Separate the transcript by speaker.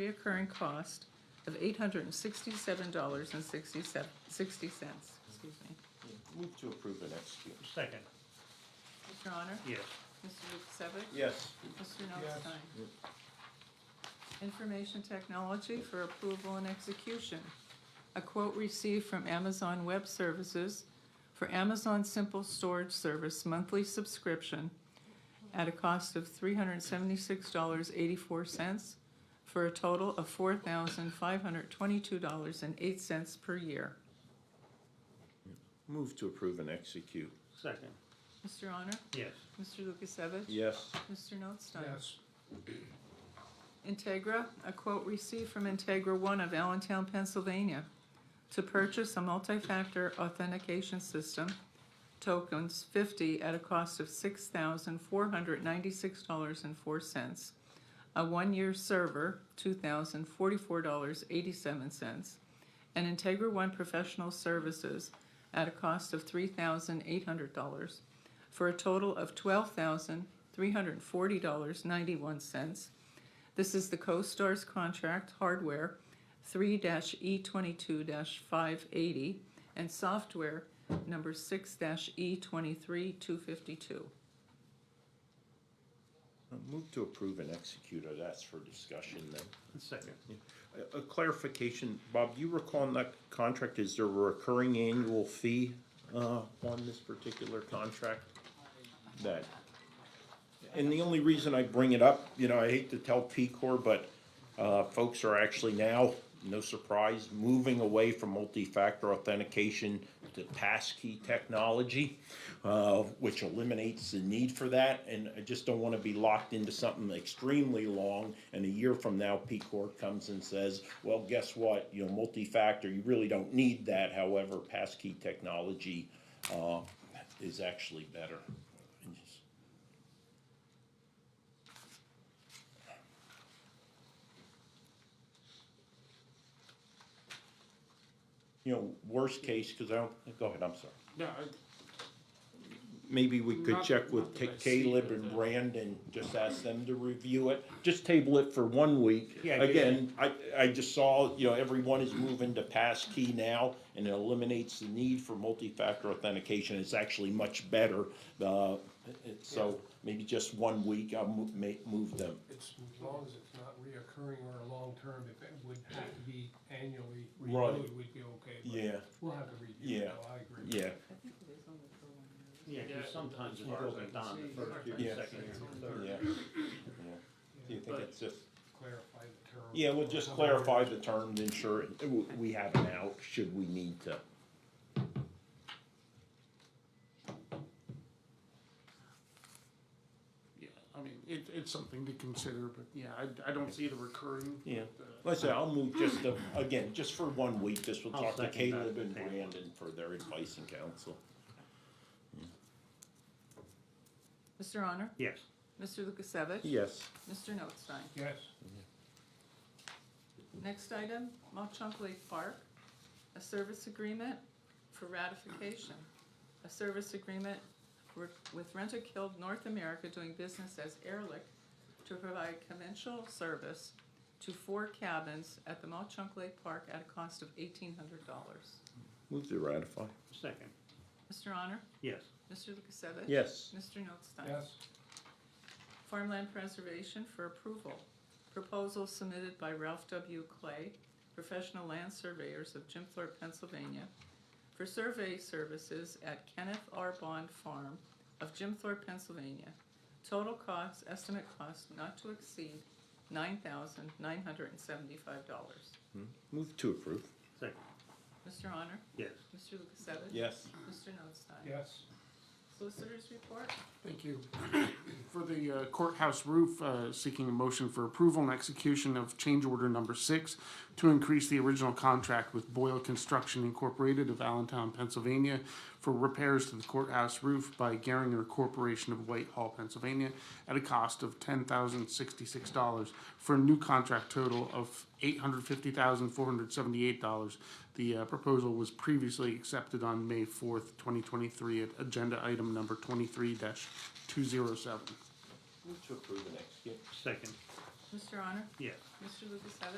Speaker 1: reoccurring cost of eight hundred and sixty-seven dollars and sixty-seven, sixty cents, excuse me.
Speaker 2: Move to approve and execute.
Speaker 3: Second,
Speaker 1: Mr. Honor?
Speaker 3: yes.
Speaker 1: Mr. Lukasevich?
Speaker 2: Yes.
Speaker 1: Mr. Notstein? Information technology for approval and execution. A quote received from Amazon Web Services for Amazon Simple Storage Service monthly subscription at a cost of three hundred and seventy-six dollars eighty-four cents for a total of four thousand five hundred twenty-two dollars and eight cents per year.
Speaker 2: Move to approve and execute.
Speaker 3: Second,
Speaker 1: Mr. Honor?
Speaker 3: yes.
Speaker 1: Mr. Lukasevich?
Speaker 2: Yes.
Speaker 1: Mr. Notstein? Integra, a quote received from Integra One of Allentown, Pennsylvania, to purchase a multi-factor authentication system, tokens fifty at a cost of six thousand four hundred ninety-six dollars and four cents, a one-year server, two thousand forty-four dollars eighty-seven cents, and Integra One professional services at a cost of three thousand eight hundred dollars, for a total of twelve thousand three hundred forty dollars ninety-one cents, this is the CoStarz contract hardware three E twenty-two five eighty and software number six E twenty-three two fifty-two.
Speaker 2: Move to approve and execute, or that's for discussion then.
Speaker 3: Second,
Speaker 2: A- A clarification, Bob, you recall in that contract, is there a recurring annual fee uh, on this particular contract? That, and the only reason I bring it up, you know, I hate to tell P-Corps, but uh, folks are actually now, no surprise, moving away from multi-factor authentication to passkey technology, uh, which eliminates the need for that, and I just don't wanna be locked into something extremely long, and a year from now, P-Corps comes and says, well, guess what, you know, multi-factor, you really don't need that, however, passkey technology uh, is actually better. And just- you know, worst case, because I don't, go ahead, I'm sorry.
Speaker 4: No,
Speaker 2: Maybe we could
Speaker 4: Not-
Speaker 2: check
Speaker 4: not
Speaker 2: with
Speaker 4: that I see it,
Speaker 2: Caleb and
Speaker 4: uh,
Speaker 2: Brandon, just ask them to review it, just table it for one week.
Speaker 3: Yeah, do
Speaker 2: Again, I, I just saw, you know, everyone is moving to passkey now, and it eliminates the need for multi-factor authentication, it's actually much better. Uh, it- so, maybe just one week, I'll move, make, move them.
Speaker 4: it's, as long as it's not reoccurring or long-term, if it would have to be annually
Speaker 2: Right.
Speaker 4: renewed, we'd be okay. but
Speaker 2: Yeah,
Speaker 4: We'll have to review it,
Speaker 2: Yeah.
Speaker 4: though, I agree.
Speaker 2: yeah,
Speaker 3: yeah, 'cause
Speaker 4: Yeah.
Speaker 3: sometimes it
Speaker 4: As far as I
Speaker 3: goes
Speaker 4: can
Speaker 3: down the
Speaker 4: see,
Speaker 3: first
Speaker 2: Yeah.
Speaker 3: year, second year, and third.
Speaker 2: yeah, yeah. Do you think it's just?
Speaker 4: Clarify the term.
Speaker 2: Yeah, we'll just clarify the terms, ensure it- w- we have it now, should we need to.
Speaker 5: Yeah, I mean, it, it's something to consider, but yeah, I, I don't see the recurring.
Speaker 2: Yeah. Let's say, I'll move just, to- again, just for one week, this will
Speaker 3: I'll
Speaker 2: talk to
Speaker 3: second that.
Speaker 2: Caleb and Brandon for their advice and counsel.
Speaker 1: Mr. Honor?
Speaker 3: Yes,
Speaker 1: Mr. Lukasevich?
Speaker 2: Yes.
Speaker 1: Mr. Notstein?
Speaker 4: Yes,
Speaker 1: Next item, Mochunk Lake Park, a service agreement for ratification. A service agreement for- with Rentokil North America doing business as Airlick to provide conventional service to four cabins at the Mochunk Lake Park at a cost of eighteen hundred dollars.
Speaker 2: Move to ratify.
Speaker 3: second,
Speaker 1: Mr. Honor?
Speaker 3: yes,
Speaker 1: Mr. Lukasevich?
Speaker 2: Yes.
Speaker 1: Mr. Notstein?
Speaker 4: yes,
Speaker 1: Farmland Preservation for approval. Proposal submitted by Ralph W. Clay, Professional Land Surveyors of Jim Thorpe, Pennsylvania, for survey services at Kenneth R. Bond Farm of Jim Thorpe, Pennsylvania. Total cost, estimate cost not to exceed nine thousand nine hundred and seventy-five dollars.
Speaker 2: Move to approve.
Speaker 3: second,
Speaker 1: Mr. Honor?
Speaker 3: yes.
Speaker 1: Mr. Lukasevich?
Speaker 2: Yes.
Speaker 1: Mr. Notstein?
Speaker 4: yes.
Speaker 1: Solicitors report?
Speaker 5: Thank you. For the uh, courthouse roof, uh, seeking a motion for approval and execution of change order number six to increase the original contract with Boyle Construction Incorporated of Allentown, Pennsylvania for repairs to the courthouse roof by Garinger Corporation of Whitehall, Pennsylvania at a cost of ten thousand sixty-six dollars for a new contract total of eight hundred fifty thousand four hundred seventy-eight dollars. The uh, proposal was previously accepted on May fourth, twenty twenty-three at agenda item number twenty-three two zero seven.
Speaker 2: Move to approve and execute.
Speaker 3: Second,
Speaker 1: Mr. Honor?
Speaker 6: Yes.
Speaker 1: Mr. Lukasevich?